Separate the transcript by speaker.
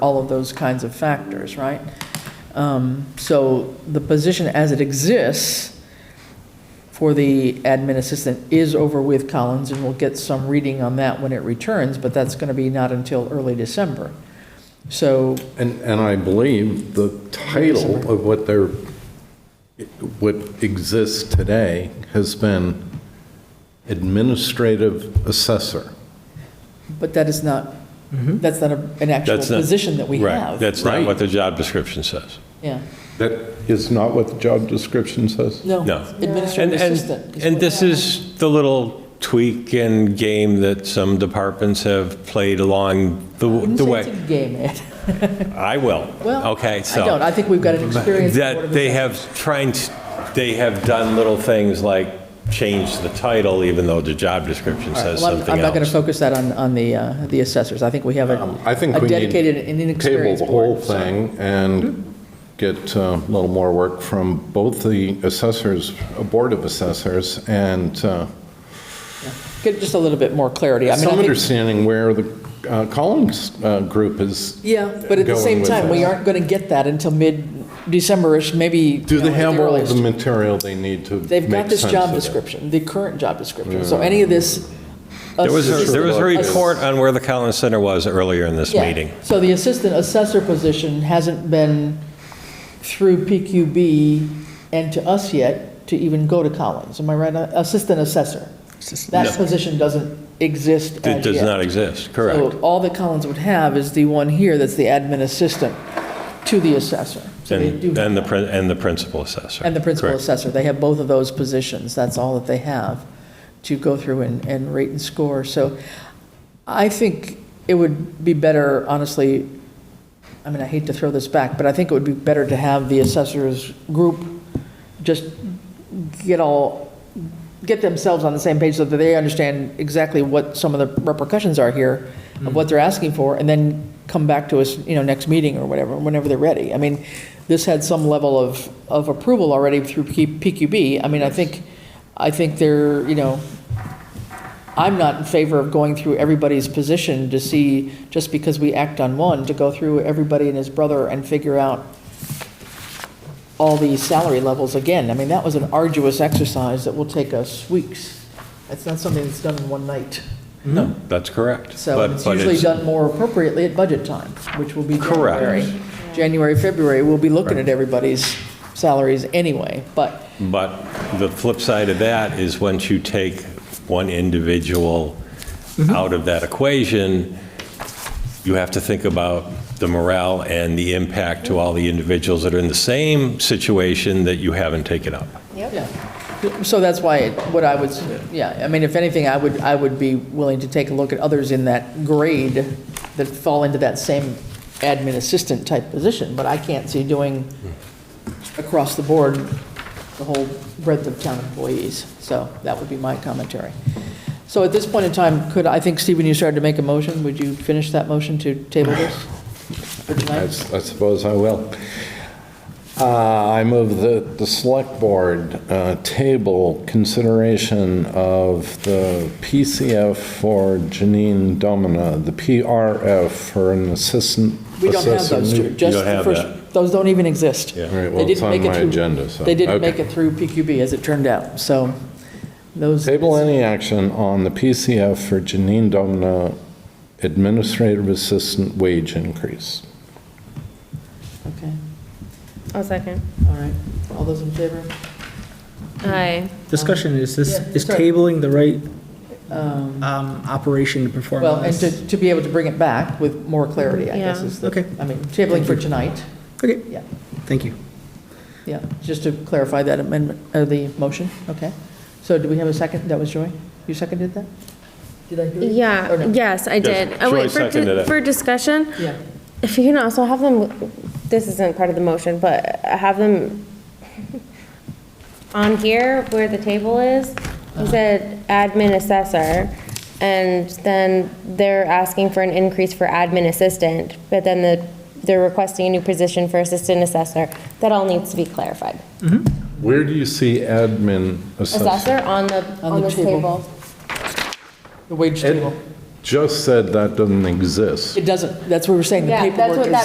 Speaker 1: all of those kinds of factors, right? Um, So the position as it exists for the admin assistant is over with Collins, and we'll get some reading on that when it returns, but that's going to be not until early December. So,
Speaker 2: And, and I believe the title of what they're, what exists today has been administrative assessor.
Speaker 1: but that is not, that's not a- an actual
Speaker 3: That's not-
Speaker 1: position that we have.
Speaker 3: Right, that's not
Speaker 2: Right.
Speaker 3: what the job description says.
Speaker 1: Yeah,
Speaker 2: That is not what the job description says?
Speaker 1: no.
Speaker 3: No. And,
Speaker 1: Administrative assistant.
Speaker 3: and, and
Speaker 1: what-
Speaker 3: this is the little tweak and game that some departments have played along the,
Speaker 1: I wouldn't
Speaker 3: the
Speaker 1: say
Speaker 3: way.
Speaker 1: it's a game, Ed.
Speaker 3: I will.
Speaker 1: Well,
Speaker 3: Okay,
Speaker 1: I don't,
Speaker 3: so.
Speaker 1: I think we've got an experience.
Speaker 3: That they have tried, they have done little things like change the title even though the job description says
Speaker 1: Well, I'm-
Speaker 3: something
Speaker 1: I'm not going to
Speaker 3: else.
Speaker 1: focus that on, on the, uh, the assessors. I think we have a
Speaker 2: Um, I think
Speaker 1: a
Speaker 2: we need.
Speaker 1: dedicated and inexperienced
Speaker 2: Table the whole
Speaker 1: board, so- Hmm.
Speaker 2: thing and get uh, a little more work from both the assessors, uh, Board of Assessors, and uh,
Speaker 1: Get just a little bit more clarity. I mean,
Speaker 2: some
Speaker 1: I think,
Speaker 2: understanding where the uh, Collins uh, group is.
Speaker 1: yeah, but at the
Speaker 2: going
Speaker 1: same
Speaker 2: with
Speaker 1: time, we
Speaker 2: this.
Speaker 1: aren't going to get that until mid-Decemberish, maybe.
Speaker 2: Do
Speaker 1: you
Speaker 2: they
Speaker 1: know, at the
Speaker 2: have all of
Speaker 1: earliest.
Speaker 2: the material they need to make sense of
Speaker 1: They've got this job
Speaker 2: it? Mm.
Speaker 1: description, the current job description. So any of this.
Speaker 3: There was, a- there was a
Speaker 2: Assistant-
Speaker 3: report on where the Collins Center was earlier in this
Speaker 1: Yeah.
Speaker 3: meeting.
Speaker 1: So the assistant assessor position hasn't been through PQB and to us yet to even go to Collins. Am I right? Uh, Assistant assessor. That position doesn't exist as yet.
Speaker 3: It does not exist, correct.
Speaker 1: So all that Collins would have is the one here that's the admin assistant to the assessor. So they do
Speaker 3: And, and the,
Speaker 1: have-
Speaker 3: prin- and the principal assessor.
Speaker 1: And the principal
Speaker 3: Correct.
Speaker 1: assessor. They have both of those positions. That's all that they have to go through and, and rate and score. So I think it would be better, honestly, I mean, I hate to throw this back, but I think it would be better to have the assessors group just get all, get themselves on the same page so that they understand exactly what some of the repercussions are here, of what they're asking for, and then come back to us, you know, next meeting or whatever, whenever they're ready. I mean, this had some level of, of approval already through P- PQB. I mean, I think, I think they're, you know, I'm not in favor of going through everybody's position to see, just because we act on one, to go through everybody and his brother and figure out all these salary levels again. I mean, that was an arduous exercise that will take us weeks. It's not something that's done in one night.
Speaker 3: No, that's correct.
Speaker 1: So
Speaker 3: But-
Speaker 1: it's
Speaker 3: but
Speaker 1: usually done more appropriately at budget time, which will be
Speaker 3: Correct.
Speaker 1: January. January, February, we'll be looking at everybody's salaries anyway, but
Speaker 3: But the flip side of that is once you take one individual
Speaker 1: Mm-hmm.
Speaker 3: out of that equation, you have to think about the morale and the impact to all the individuals that are in the same situation that you haven't taken up.
Speaker 1: Yeah, so that's why, it- what I would, yeah, I mean, if anything, I would, I would be willing to take a look at others in that grade that fall into that same admin assistant type position, but I can't see doing across the board the whole breadth of town employees, so that would be my commentary. So at this point in time, could, I think, Stephen, you started to make a motion, would you finish that motion to table this for
Speaker 2: I
Speaker 1: tonight?
Speaker 2: s- I suppose I will. Uh, I move that the Select Board uh, table consideration of the PCF for Janine Domina, the PRF for an assistant.
Speaker 1: We don't have
Speaker 2: assessor
Speaker 1: those
Speaker 2: new-
Speaker 1: two, just
Speaker 3: don't
Speaker 1: the
Speaker 3: have
Speaker 1: first,
Speaker 3: that.
Speaker 1: those don't even exist.
Speaker 3: Yeah.
Speaker 2: All right,
Speaker 1: They
Speaker 2: well, it's
Speaker 1: didn't
Speaker 2: on
Speaker 1: make
Speaker 2: my
Speaker 1: it through.
Speaker 2: agenda, so.
Speaker 1: They didn't
Speaker 2: okay.
Speaker 1: make it through PQB, as it turned out, so those.
Speaker 2: Table any action on the PCF for Janine Domina administrative assistant wage increase.
Speaker 1: Okay,
Speaker 4: I'll second.
Speaker 1: all right. All those in favor?
Speaker 4: Aye.
Speaker 5: Discussion, is this,
Speaker 1: Um, Yeah,
Speaker 5: is
Speaker 1: sorry.
Speaker 5: tabling the right um, operation to perform
Speaker 1: Well,
Speaker 5: on
Speaker 1: and
Speaker 5: this?
Speaker 1: to, to be able to bring it back with more clarity, I guess,
Speaker 4: Yeah.
Speaker 1: is the.
Speaker 5: Okay.
Speaker 1: I mean, tabling for tonight,
Speaker 5: Okay,
Speaker 1: yeah,
Speaker 5: thank you.
Speaker 1: yeah, just to clarify that amendment, uh, the motion, okay. So do we have a second? That was Joy? You seconded that? Did I hear? you? Or
Speaker 4: Yeah,
Speaker 1: no?
Speaker 4: yes, I did. Oh,
Speaker 3: Joy
Speaker 4: wait, for,
Speaker 3: seconded
Speaker 4: di-
Speaker 3: it.
Speaker 4: for discussion,
Speaker 1: Yeah,
Speaker 4: if you can also have them, this isn't part of the motion, but have them on here where the table is, he said admin assessor, and then they're asking for an increase for admin assistant, but then the, they're requesting a new position for assistant assessor. That all needs to be clarified.
Speaker 2: Where do you see admin assessor?
Speaker 4: Assessor on the, on this
Speaker 1: table.
Speaker 4: table.
Speaker 1: the wage
Speaker 2: Ed-
Speaker 1: table.
Speaker 6: just said that doesn't exist.
Speaker 1: It doesn't, that's what we're saying, the
Speaker 2: Yeah, that's
Speaker 1: paperwork
Speaker 2: what
Speaker 1: is.
Speaker 2: that